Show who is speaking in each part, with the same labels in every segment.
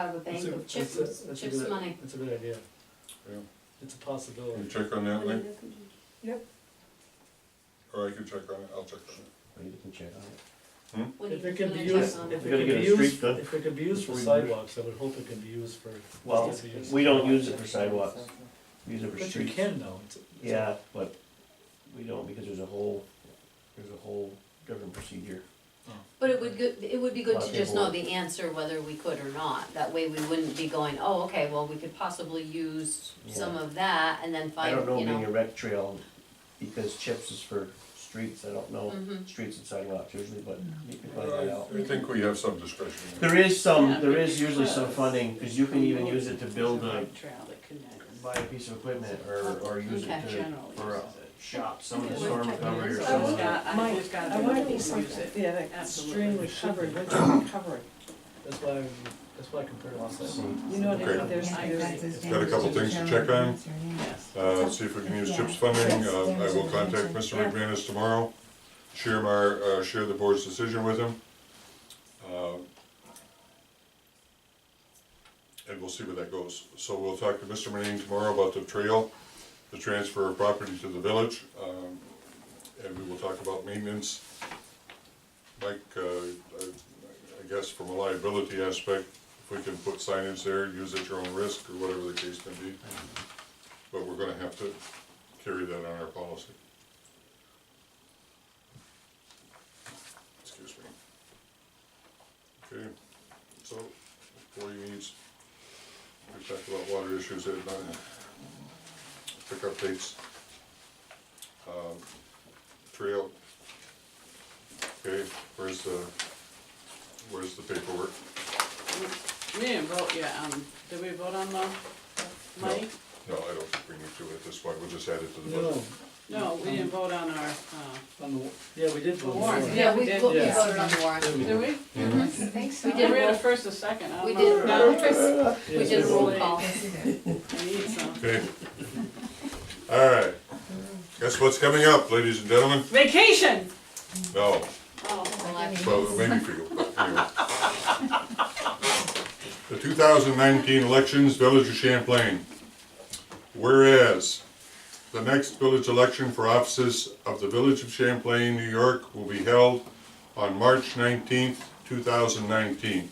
Speaker 1: out of the bank
Speaker 2: That's a-
Speaker 1: of chips,
Speaker 2: that's a- that's a
Speaker 1: chips
Speaker 2: good-
Speaker 1: money.
Speaker 2: That's a good idea.
Speaker 3: Yeah.
Speaker 2: It's a
Speaker 3: Can you
Speaker 2: possibility.
Speaker 3: check on that link,
Speaker 4: Yep.
Speaker 3: or I can check on it, I'll check on it.
Speaker 5: Or you can check on it.
Speaker 1: When
Speaker 2: If
Speaker 1: you
Speaker 2: it can be
Speaker 1: gonna
Speaker 2: used,
Speaker 1: check on
Speaker 2: if
Speaker 1: it?
Speaker 2: it can
Speaker 5: We gotta
Speaker 2: be
Speaker 5: get a street
Speaker 2: used,
Speaker 5: cut.
Speaker 2: if it can be used for
Speaker 5: Reverse.
Speaker 2: sidewalks, I would hope it can be used for.
Speaker 5: Well,
Speaker 2: it's used.
Speaker 5: we don't use it for sidewalks, we use it for
Speaker 2: But you
Speaker 5: streets.
Speaker 2: can though. It's- it's-
Speaker 5: Yeah, but we don't because there's a whole, there's a whole different procedure.
Speaker 2: oh,
Speaker 1: But it would good, it would be good
Speaker 5: Lot
Speaker 1: to
Speaker 5: of
Speaker 1: just
Speaker 5: people-
Speaker 1: know the answer whether we could or not, that way we wouldn't be going, oh, okay, well, we could possibly use some
Speaker 5: Yeah.
Speaker 1: of that and then
Speaker 5: I
Speaker 1: find,
Speaker 5: don't know
Speaker 1: you
Speaker 5: being a
Speaker 1: know.
Speaker 5: rec trail, because chips is for streets, I don't know,
Speaker 1: Mhm.
Speaker 5: streets and sidewalks usually, but you can find that out.
Speaker 3: I think we have some discretion.
Speaker 5: There is some, Um, there is usually some funding, cause you can even use it to build a,
Speaker 4: Trail that connects.
Speaker 5: buy a piece of equipment or, or use it
Speaker 1: Okay.
Speaker 5: to,
Speaker 4: Generally
Speaker 5: for a
Speaker 4: uses it.
Speaker 5: shop, some
Speaker 1: Okay.
Speaker 5: storm recovery or
Speaker 4: So
Speaker 6: I
Speaker 4: it's
Speaker 6: would-
Speaker 5: something.
Speaker 4: got, I
Speaker 6: Mike,
Speaker 4: just got
Speaker 6: I wanna
Speaker 4: to
Speaker 6: be
Speaker 4: use
Speaker 6: something,
Speaker 4: it.
Speaker 6: yeah, like
Speaker 4: Absolutely.
Speaker 6: extremely covered, what's recovery?
Speaker 2: That's why, I'm- that's why I compared it to sidewalks.
Speaker 6: You know,
Speaker 3: Okay.
Speaker 6: there's, there's,
Speaker 3: Got a couple things to check on.
Speaker 4: Yes.
Speaker 3: Uh, see if we can use CHIPS funding, um, I will contact Mr. McManus tomorrow, share my, uh, share the board's decision with him. Uh, And we'll see where that goes, so we'll talk to Mr. Manning tomorrow about the trail, the transfer of property to the village, um, and we will talk about maintenance. Mike, uh, I, I guess from a liability aspect, if we can put signage there, use at your own risk, or whatever the case may be. But we're gonna have to carry that on our policy. Excuse me. Okay, so, forty needs, we talked about water issues, at nine, pick updates. Um, Trail. Okay, where's the, where's the paperwork?
Speaker 4: We didn't vote yet, um, did we vote on the
Speaker 3: No.
Speaker 4: money?
Speaker 3: No, I don't think we need to at this point, we'll just add it to the budget.
Speaker 2: No,
Speaker 4: No, we didn't vote on our, uh,
Speaker 2: on the, yeah, we did vote.
Speaker 4: Warrant.
Speaker 2: for it.
Speaker 1: Yeah, we,
Speaker 4: Yeah.
Speaker 1: vo- we
Speaker 2: Yeah.
Speaker 1: voted on the warrant.
Speaker 2: Yeah, we
Speaker 4: did we?
Speaker 1: We
Speaker 4: We
Speaker 1: did
Speaker 4: had a
Speaker 1: roll,
Speaker 4: first and second, I
Speaker 1: we
Speaker 4: don't know.
Speaker 1: did,
Speaker 4: No,
Speaker 1: no,
Speaker 2: Yeah,
Speaker 1: we did
Speaker 2: we
Speaker 1: roll
Speaker 2: did.
Speaker 1: call.
Speaker 4: I need some.
Speaker 3: Okay. All right. Guess what's coming up, ladies and gentlemen?
Speaker 4: Vacation!
Speaker 3: No,
Speaker 4: Oh,
Speaker 1: Well, I-
Speaker 3: well, maybe for you, but anyway. The two thousand nineteen elections, Village of Champlain. Whereas, the next village election for offices of the Village of Champlain, New York, will be held on March nineteenth, two thousand nineteen.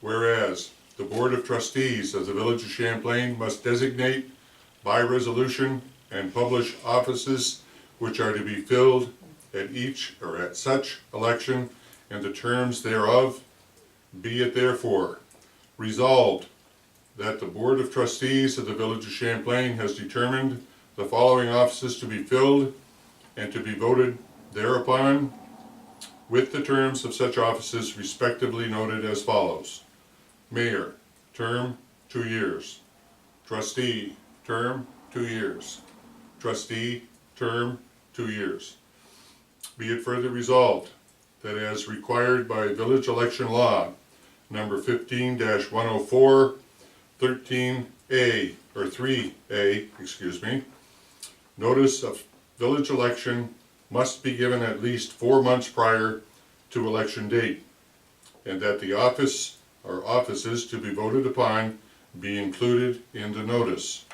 Speaker 3: Whereas, the Board of Trustees of the Village of Champlain must designate by resolution and publish offices which are to be filled at each or at such election and the terms thereof. Be it therefore resolved that the Board of Trustees of the Village of Champlain has determined the following offices to be filled and to be voted thereupon with the terms of such offices respectively noted as follows. Mayor, term, two years. Trustee, term, two years. Trustee, term, two years. Be it further resolved that as required by village election law, number fifteen 104 13 A, or three A, excuse me, notice of village election must be given at least four months prior to election date, and that the office or offices to be voted upon be included in the notice.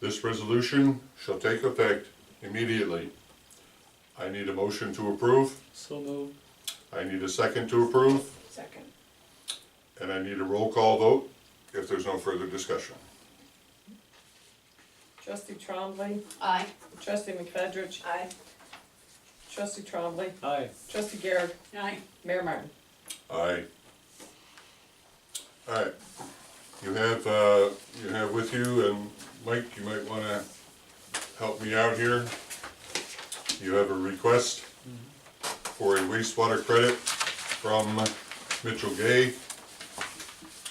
Speaker 3: This resolution shall take effect immediately. I need a motion to approve,
Speaker 2: So moved.
Speaker 3: I need a second to approve,
Speaker 6: Second.
Speaker 3: and I need a roll call vote if there's no further discussion.
Speaker 6: Trustee Trombley,
Speaker 1: Aye,
Speaker 6: trustee McFedge. Aye. Trustee Trombley,
Speaker 2: Aye.
Speaker 6: trustee Garrett,
Speaker 4: aye.
Speaker 6: Mayor Martin.
Speaker 3: Aye. Alright, you have, uh, you have with you, and Mike, you might wanna help me out here. You have a request for a wastewater credit from Mitchell Gay.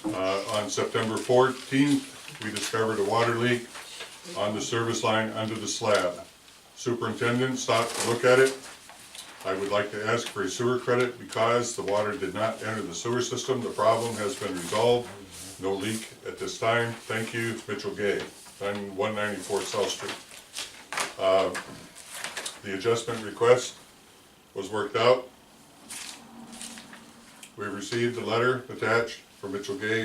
Speaker 3: Uh, on September fourteenth, we discovered a water leak on the service line under the slab. Superintendent stopped to look at it, I would like to ask for a sewer credit because the water did not enter the sewer system. The problem has been resolved. No leak at this time. Thank you, Mitchell Gay, on one ninety-four South Street. Uh, The adjustment request was worked out. We received the letter attached from for Mitchell Gay,